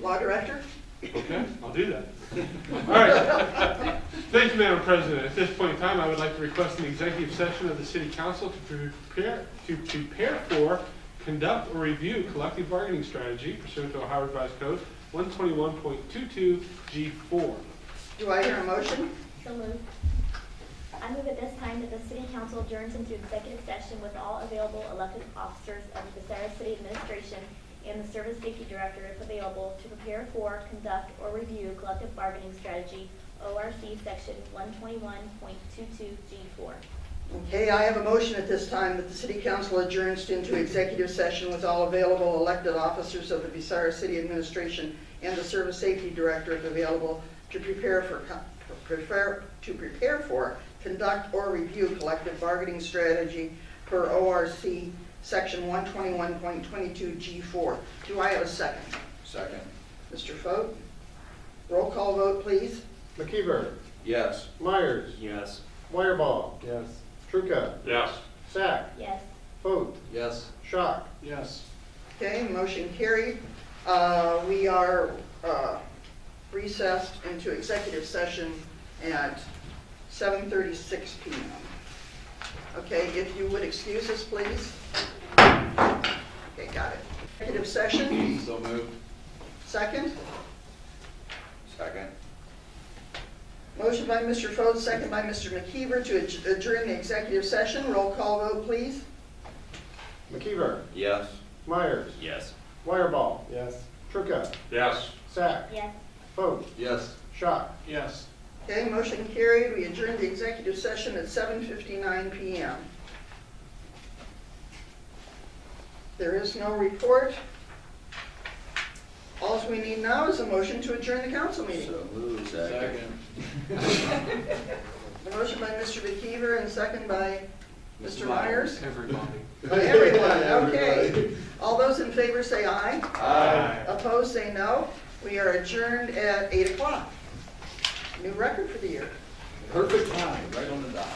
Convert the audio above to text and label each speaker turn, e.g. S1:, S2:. S1: law director?
S2: Okay, I'll do that. All right. Thank you, Madam President. At this point in time, I would like to request an executive session of the City Council to prepare, to prepare for, conduct, or review collective bargaining strategy pursuant to Ohio Revised Code 121.22G4.
S1: Do I hear a motion?
S3: So moved. I move at this time that the city council adjourns into executive session with all available elected officers of the Bucyrus City Administration and the Service Safety Director if available to prepare for, conduct, or review collective bargaining strategy, ORC Section 121.22G4.
S1: Okay, I have a motion at this time that the city council adjourns into executive session with all available elected officers of the Bucyrus City Administration and the Service Safety Director if available to prepare for, co- prepare, to prepare for, conduct or review collective bargaining strategy per ORC Section 121.22G4. Do I have a second?
S4: Second.
S1: Mr. Foat? Roll call vote, please.
S5: McKeever,
S4: Yes.
S5: Myers,
S6: Yes.
S5: Wireball,
S6: Yes.
S5: Trucca,
S2: Yes.
S5: Sack,
S3: Yes.
S5: Vote,
S4: Yes.
S5: Shock.
S2: Yes.
S1: Okay, motion carried. Uh, We are uh, recessed into executive session at 7:36 PM. Okay, if you would excuse us, please. Okay, got it. Executive session,
S4: So moved.
S1: second.
S4: Second.
S1: Motion by Mr. Foad, second by Mr. McKeever to adj- adjourn the executive session. Roll call vote, please.
S5: McKeever,
S4: Yes.
S5: Myers,
S6: Yes.
S5: Wireball,
S6: Yes.
S5: Trucca,
S2: Yes.
S5: Sack,
S3: Yes.
S5: Vote,
S4: Yes.
S5: Shock.
S2: Yes.
S1: Okay, motion carried. We adjourn the executive session at 7:59 PM. There is no report. All we need now is a motion to adjourn the council meeting.
S4: So moved. Second.
S1: The motion by Mr. McKeever and second by Mr. Myers.
S2: Everybody.
S1: Everyone, okay. All those in favor say aye.
S4: Aye.
S1: Opposed, say no. We are adjourned at 8 o'clock. New record for the year.
S4: Perfect time, right on the dot.